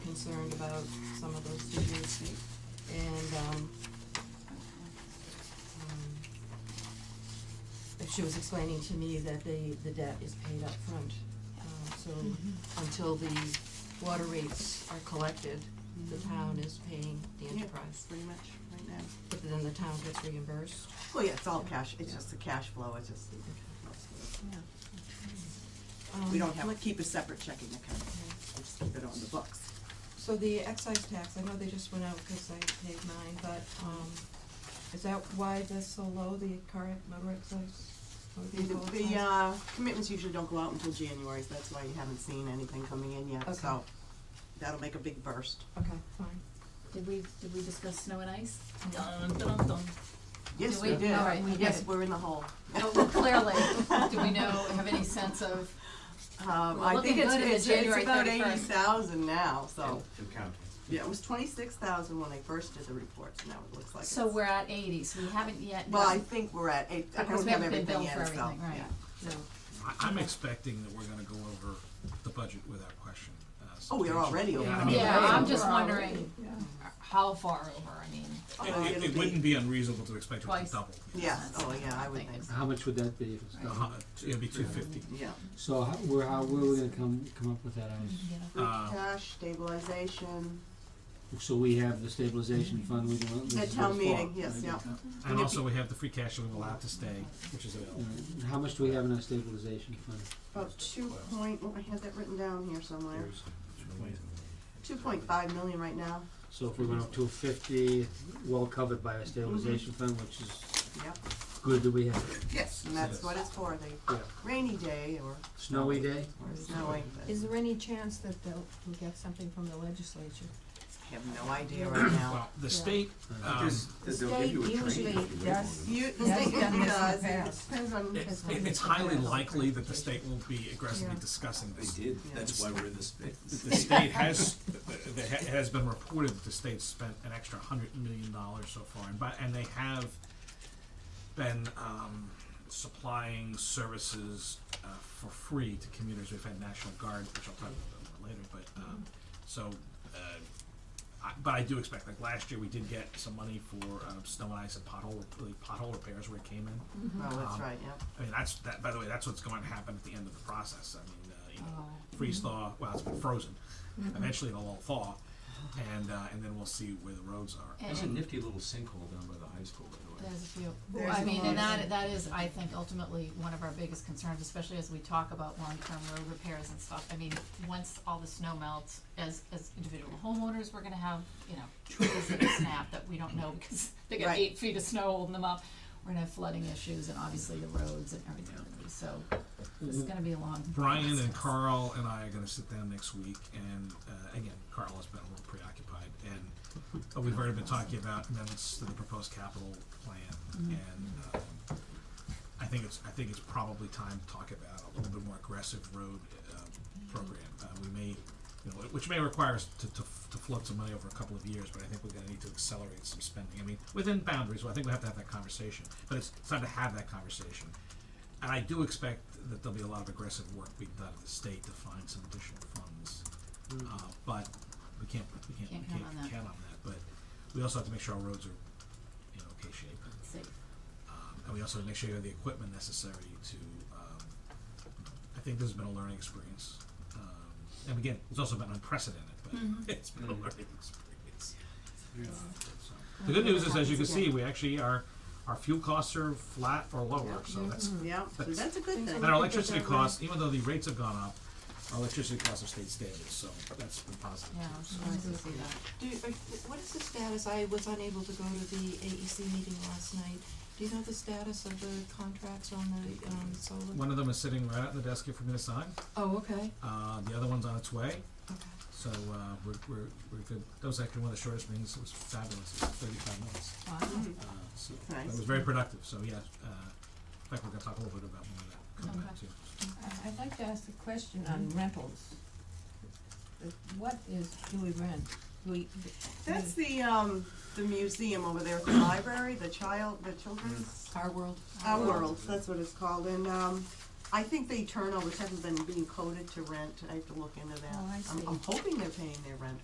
concerned about some of those figures. And, um, um, she was explaining to me that the, the debt is paid up front. Uh, so Mm-hmm. until the water rates are collected, the town is paying the Mm-hmm. Yeah. enterprise. pretty much right now. But then the town gets reimbursed. Well, yeah, it's all cash, it's just the cash flow, it's just, we don't have, Um, to keep a separate checking account, we just keep it on the books. So the excise tax, I know they just went out because I paid mine, but, um, is that why that's so low, the current motor excise? motor The, vehicle the, excise? uh, commitments usually don't go out until January, so that's why you haven't seen anything coming in yet, so Okay. that'll make a big burst. Okay, fine. Did we, did we discuss snow and ice? Yes, Do we we? did, All right, we yes, did. we're in the hole. Oh, well, clearly, do we know, have any sense of, Um, We're I looking think it's, good in the it's, it's January about 31st. eighty thousand now, so. To count. Yeah, it was twenty-six thousand when they first did the reports, and now it looks like so it's- we're at eighty, so we haven't yet. Well, I think we're at eight, I don't Because we have haven't everything been billed yet, so. for everything, right, yeah. no, I- I'm expecting that we're gonna go over the budget without question. uh, Oh, we are already over. Yeah, I mean, yeah, I'm it- just wondering how far over, I mean, Oh, It, it'll it wouldn't be unreasonable to expect it Twice. to double. Yeah, That's oh, what yeah, I'm I would thinking. think so, How much would that be if it's Uh, double? It'd be two fifty. yeah. So how, where, how, where are we gonna come, come up with that? Um, I was, Free Uh, cash, stabilization, so we have the stabilization fund, we can, this At is town what's for, meeting, yes, right? yeah. And also, we have the free cash that we're allowed to stay, which is All available. right. And How much do we have in our stabilization fund? about two point, oh, I had that written down here somewhere, There's two point five million right now, So if we went up to fifty, well covered by our stabilization fund, which is yep. good that we have, Yes. And that's Yes. what it's for, the yeah, rainy day or, snowy day? or snowing, but Is there any chance that they'll, we'll get something from the legislature? I have no idea right now. Well, the state, um, There's, they'll give you a training. State usually if you does- wait long enough. You, the That's state done this in does, the and it past. depends on. it, it's- it- it's highly likely that the state will be aggressively Yeah. discussing this. They did, Yeah. that's why we're in this big. The state has, it has been reported that the state spent an extra hundred million dollars so far, and by, and they have been, um, supplying services, uh, for free to commuters, we've had National Guard, which I'll talk about more later, but, um, so, uh, I, but I do expect, like, last year, we did get some money for, um, snow and ice and pothole, really pothole repairs where it came in. Oh, that's Um, right, yeah. I mean, that's, that, by the way, that's what's going to happen at the end of the process. I mean, uh, you know, Oh. freeze thaw, well, it's been frozen. Eventually it'll all thaw, and, uh, and then we'll see where the roads are. and There's a nifty little sinkhole down by the high school, by the way. there's a few, There's I a mean, lot and of that, them. that is, I think, ultimately, one of our biggest concerns, especially as we talk about long-term road repairs and stuff, I mean, once all the snow melts, as, as individual homeowners, we're gonna have, you know, trees that snap that we don't know, because they got Right. eight feet of snow holding them up, we're gonna have flooding issues, and obviously the roads and everything, so, this is gonna be a long. Mm-hmm. Brian and process. Carl and I are going to sit down next week, and uh, again, Carl has been a little preoccupied, and uh, we've already been talking about amendments to the proposed capital plan, and um, I think it's I think it's probably time to talk about a little bit more aggressive road uh, program. Uh, we may, you know, which may require us to, to to float some money over a couple of years, but I think we're going to need to accelerate some spending. I mean, within boundaries, well, I think we have to have that conversation, but it's, it's time to have that conversation. And I do expect that there'll be a lot of aggressive work being done at the state to find some additional funds. Uh, but we can't, we can't, Can't we count can't on that. count on that, but we also have to make sure our roads are in okay shape. Safe. Um, and we also have to make sure you have the equipment necessary to, um, I think this has been a learning experience. Um, and again, it's also been unprecedented, but Mm-hmm. it's been a learning experience. So, The good news is, as you can see, we actually are, our fuel costs are flat or lower, so that's Hmm. Yeah, so That's- that's a good thing. and our electricity costs, even though the rates have gone up, our electricity costs have stayed stable, so that's been positive. Yeah, I'm sure I can see that. Do, you- are, what is the status, I was unable to go to the AEC meeting last night, do you know the status of the contracts on the, um, solar? One of them is sitting right out in the desk here for me to sign, Oh, okay, uh, the other one's on its way, okay. so, uh, we're, we're, we're good. That was actually one of the shortest meetings, it was fabulous, it was thirty-five minutes, Wow. Mhm. uh, so, Nice. it was very productive, so, yeah, uh, in fact, we're gonna talk a little bit about more of that coming up Okay. too. I- Uh, I'd like to ask a question on rentals. Uh, What is, do we rent? We, That's the, um, the museum over there at the library, the child, the children's, Our world. our world, that's what it's called, and, um, I think the turnovers haven't been being coded to rent, I have to look into that. Oh, I I'm, see. I'm hoping they're paying their rent,